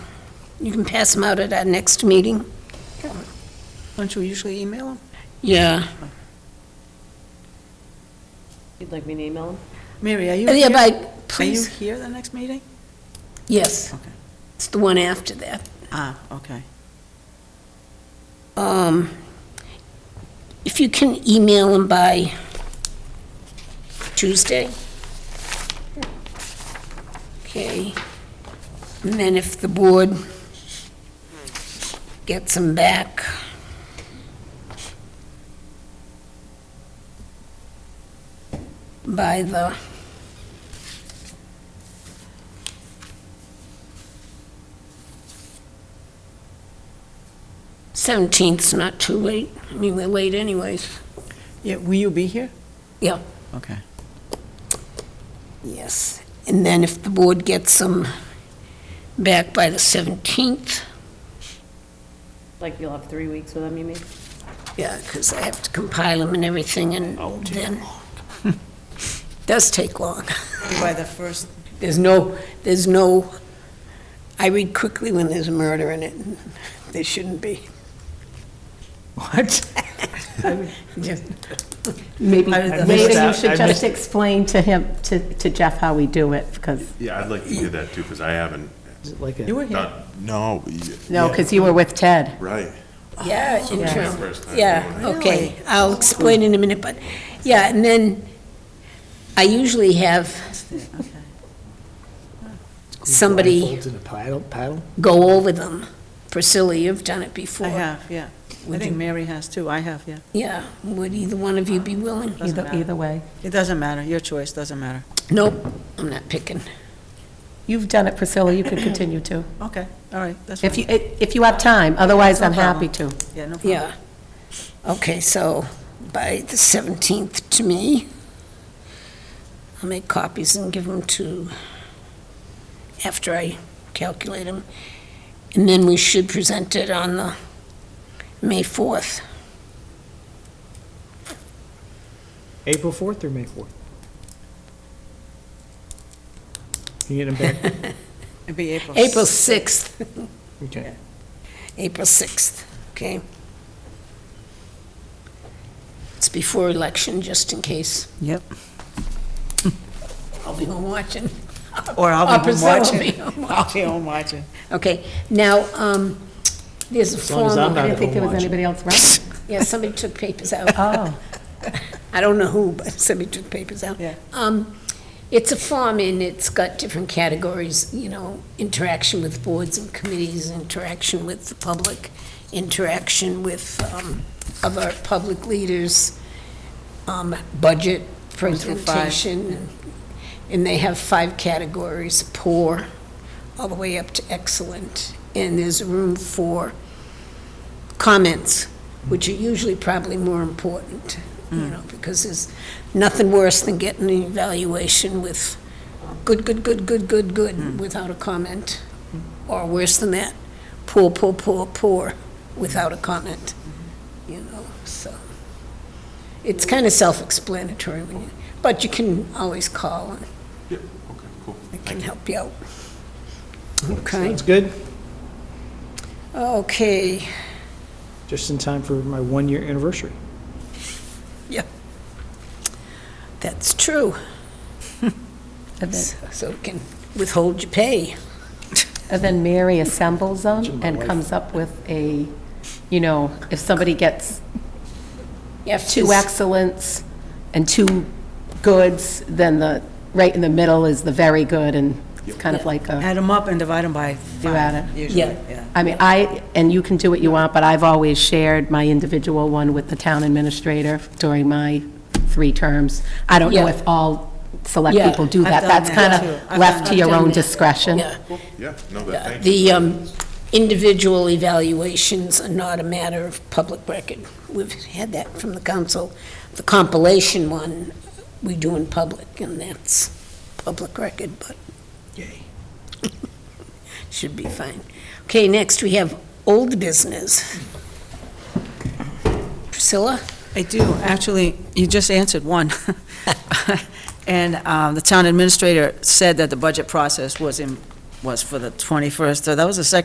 You can pass them out at our next meeting. Don't you usually email them? Yeah. You'd like me to email him? Mary, are you Uh, Yeah, here? but Are you please, here the next meeting? yes, Okay. it's the one after that. Ah, okay. Um, If you can email them by Tuesday? Okay. And then if the board gets them back, by the, seventeenth's not too late. I mean, we're late anyways. Yeah, will you be here? Yeah. Okay. Yes, and then if the board gets them back by the 17th, Like you'll have three weeks with him, you mean? yeah, because I have to compile them and everything, and Oh, then, does take long. By the first. There's no, there's no, I read quickly when there's a murder in it, and there shouldn't be. What? Just- Maybe, I- I maybe missed you out. I should just missed- explain to him, to to Jeff how we do it, because, Yeah, I'd like to do that too, because I haven't You were here. done. No. y- no, yeah, because you were with Ted. Right. Yeah, in It's my term- first time doing it. Yeah, okay, I'll explain in a minute, but, yeah, and then I usually have somebody Blindfolds and a paddle, paddle? go over them. Priscilla, you've done it before. I have, yeah. I think Mary has too. I have, yeah. Yeah, would either one of you be willing? Doesn't Either, matter. either way. It doesn't matter. Your choice, doesn't matter. Nope, I'm not picking. You've done it, Priscilla, you could continue to. Okay, all right, that's If fine. you, if you have time, otherwise No I'm happy to. problem. Yeah, no problem. Yeah. Okay, so by the 17th to me, I'll make copies and give them to, after I calculate them. And then we should present it on the May 4th. April 4th or May 4th? Can you get them back? It'd be April. April 6th, Okay. April 6th, okay? It's before election, just in case. Yep. I'll be home watching. Or I'll be home Priscilla will watching. be home I'll be home watching. Okay, now, um, there's a As long as I'm form, I not at didn't think there home was watching. anybody else around. yeah, somebody took papers out. Oh, I don't know who, but somebody took papers out. Yeah. Um, it's a form and it's got different categories, you know, interaction with boards and committees, interaction with the public, interaction with, um, other public leaders, um, budget through five. presentation. And they have five categories, poor, all the way up to excellent. And there's room for comments, which are usually probably more important, you know, because there's nothing worse than getting an evaluation with good, good, good, good, good, good, without a comment, or worse than that, poor, poor, poor, poor, without a comment, you know, so. It's kind of self-explanatory, when you- but you can always call, and Yeah, okay, cool. I can help you out. Okay, Sounds good. okay, Just in time for my one-year anniversary. that's true. and then- So it can withhold your pay. and then Mary assembles them Imagine my and wife. comes up with a, you know, if somebody gets You have two to, excellents and two goods, then the, right in the middle is the very good, and it's kind of like a, Add them up and divide them by add five, it. usually, Yeah. yeah. I mean, I, and you can do what you want, but I've always shared my individual one with the town administrator during my three terms. I don't know Yeah. if all select Yeah. people do I've that. done That's that, kind too. of I've left done- to I've your done own that. discretion. yeah, Cool, yeah, no, that, thank you. the um, individual evaluations are not a matter of public record. We've had that from the council. The compilation one, we do in public, and that's public record, but should be fine. Okay, next, we have old business. Priscilla? I do, actually, you just answered one. And um, the town administrator said that the budget process was in, was for the 21st, so that was the second